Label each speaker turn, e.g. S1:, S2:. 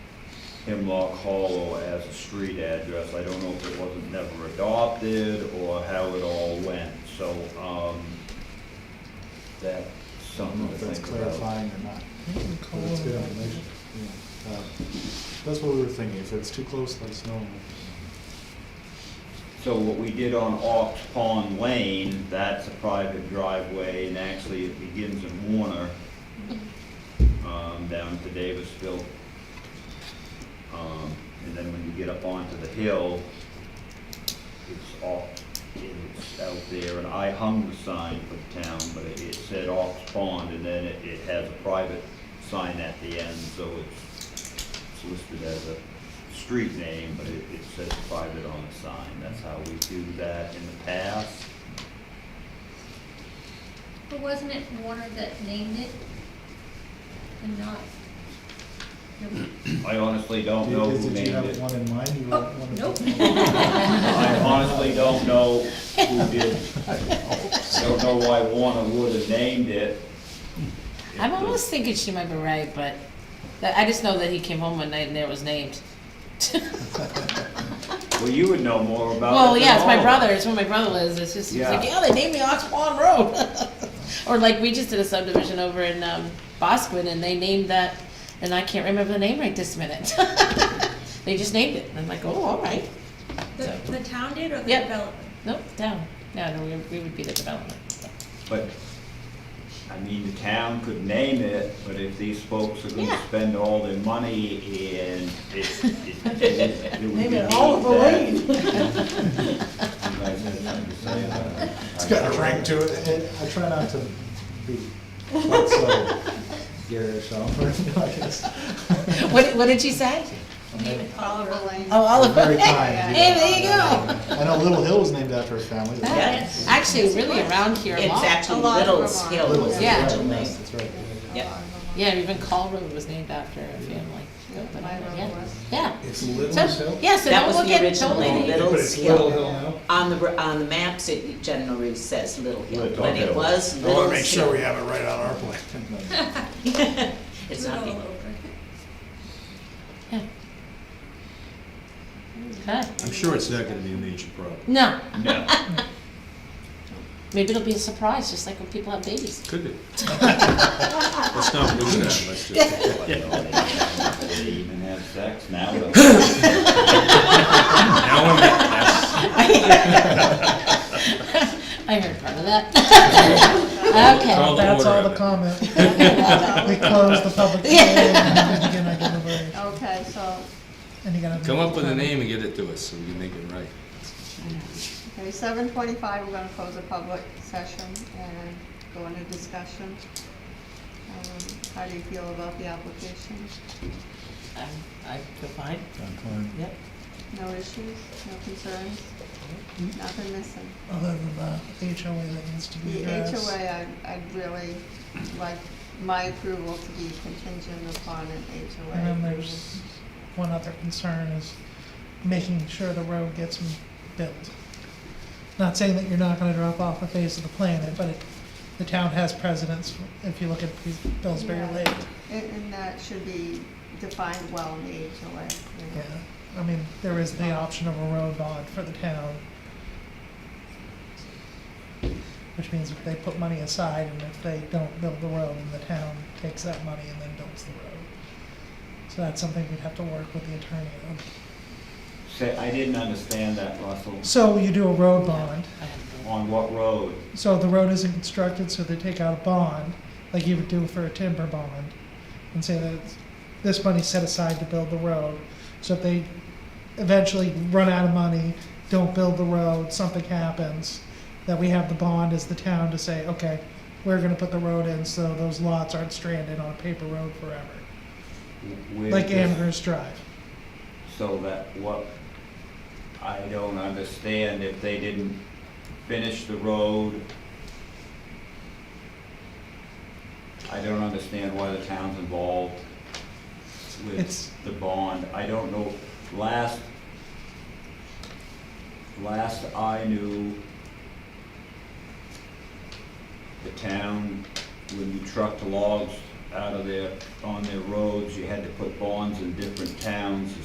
S1: Hemlock Hollow as a street address. I don't know if it wasn't never adopted or how it all went, so, um, that's
S2: I don't
S1: something
S2: know
S1: to
S2: if that's
S1: think about.
S2: clarifying or not, but it's
S3: Oh.
S2: good information. Yeah. Um, That's what we were thinking, if it's too close, let us know.
S1: So what we did on Ox Pond Lane, that's a private driveway, and actually it begins in Warner, um, down to Davisville. Um, and then when you get up onto the hill, it's off, it's out there, and I hung the sign for the town, but it, it said Ox Pond, and then it, it has a private sign at the end, so it's, it's listed as a street name, but it, it says private on the sign, that's how we do that in the past.
S4: But wasn't it Warner that named it? And not?
S1: I honestly don't know
S2: Did
S1: who
S2: did you
S1: named
S2: have
S1: it.
S2: one in mind? You
S4: Oh,
S2: want one?
S4: nope.
S1: I honestly don't know who did. I don't know why Warner would have named it.
S5: I'm almost thinking she might be right, but that, I just know that he came home one night and there it was named.
S1: Well, you would know more about it.
S5: Well, yeah,
S1: than
S5: it's my
S1: Uh, all of us.
S5: brother. It's where my brother lives. It's just he's
S1: Yeah.
S5: like, yeah, they named me Ox Pond Road. or like we just did a subdivision over in um, Bosquen, and they named that, and I can't remember the name right this minute. they just named it. And I'm like, oh, all right.
S6: The, the town did or the
S5: Yep.
S6: developer?
S5: Nope, down. No, no, we, we would be the development.
S1: But, I mean, the town could name it, but if these folks are gonna
S5: Yeah.
S1: spend all their money and it, it- it.
S5: Name it
S1: Oliver
S5: Lane.
S2: It's got a ring to it. I- I try not to be quite so garish, Oliver, I guess.
S5: What, what did she say?
S6: Oliver Lane.
S5: Oh, Oliver.
S2: Very kind.
S5: Hey, there you go.
S2: I know Little Hill was named after a family. but-
S6: Yes.
S5: Actually, really around here a
S7: It's
S5: lot.
S7: actually
S6: A lot of
S7: Little's
S6: Vermont.
S7: Hill.
S2: Little,
S7: is the
S5: Yeah.
S2: right,
S7: actual name.
S2: yes, That's right.
S7: Yeah.
S5: Yeah, even Call Road was named after a family. Yeah, but I don't- yeah. Yeah.
S8: It's Little
S5: So-
S8: Hill?
S5: Yeah, so
S7: That
S5: don't
S7: was
S5: look
S7: the
S5: at it
S7: original
S5: totally.
S7: name,
S8: But
S7: Little's
S8: it's Little
S7: Hill.
S8: Hill now?
S7: On the, on the maps, it generally says Little Hill,
S1: Little
S7: but it
S1: Hill.
S7: was
S8: I want to make
S7: Little's
S8: sure we
S7: Hill.
S8: have it right on our plan.
S7: It's not
S6: Rudolph.
S7: Hill.
S5: Okay.
S8: I'm sure it's not gonna be a major problem.
S5: No,
S1: No,
S5: maybe it'll be a surprise, just like when people have babies.
S8: Could be. Let's not lose that, let's just.
S1: they even have sex now. though.
S8: Now we're making-
S5: I heard part of that. Okay.
S8: Call the
S2: That's
S8: order
S2: all
S8: on
S2: the
S8: it.
S2: comment. We close the public hearing. And you're gonna give away-
S6: Okay, so,
S2: and you're gonna-
S8: Come up with a name and get it to us, so we can make it right.
S6: okay, seven twenty-five, we're gonna close the public session and go into discussion. Um, How do you feel about the application?
S5: Um, I feel fine,
S2: Done, fine.
S5: yep.
S6: No issues, no concerns, nothing missing?
S2: Other than the HOA that needs to be
S6: The
S2: addressed.
S6: HOA, I, I'd really like my approval to be contingent upon an HOA.
S3: And then
S6: approval.
S3: there's one other concern is making sure the road gets built. Not saying that you're not gonna drop off the face of the planet, but it, the town has precedence, if you look at Pillsbury
S6: Yeah.
S3: Lake.
S6: And, and that should be defined well in the HOA. you
S3: Yeah,
S6: know.
S3: I mean, there is the option of a road bond for the town. Which means if they put money aside and if they don't build the road, then the town takes that money and then builds the road. So that's something we'd have to work with the attorney on.
S1: Say, I didn't understand that, Russell.
S3: So you do a road bond,
S5: I have no-
S1: On what road?
S3: so the road isn't constructed, so they take out a bond, like you would do for a timber bond, and say that it's- this money's set aside to build the road. So if they eventually run out of money, don't build the road, something happens, that we have the bond as the town to say, okay, we're gonna put the road in so those lots aren't stranded on a paper road forever,
S1: Where-
S3: like Amherst Drive.
S1: So that what, I don't understand if they didn't finish the road. I don't understand why the town's involved
S3: It's-
S1: with the bond. I don't know, last, last I knew, the town, when you trucked logs out of their, on their roads, you had to put bonds in different towns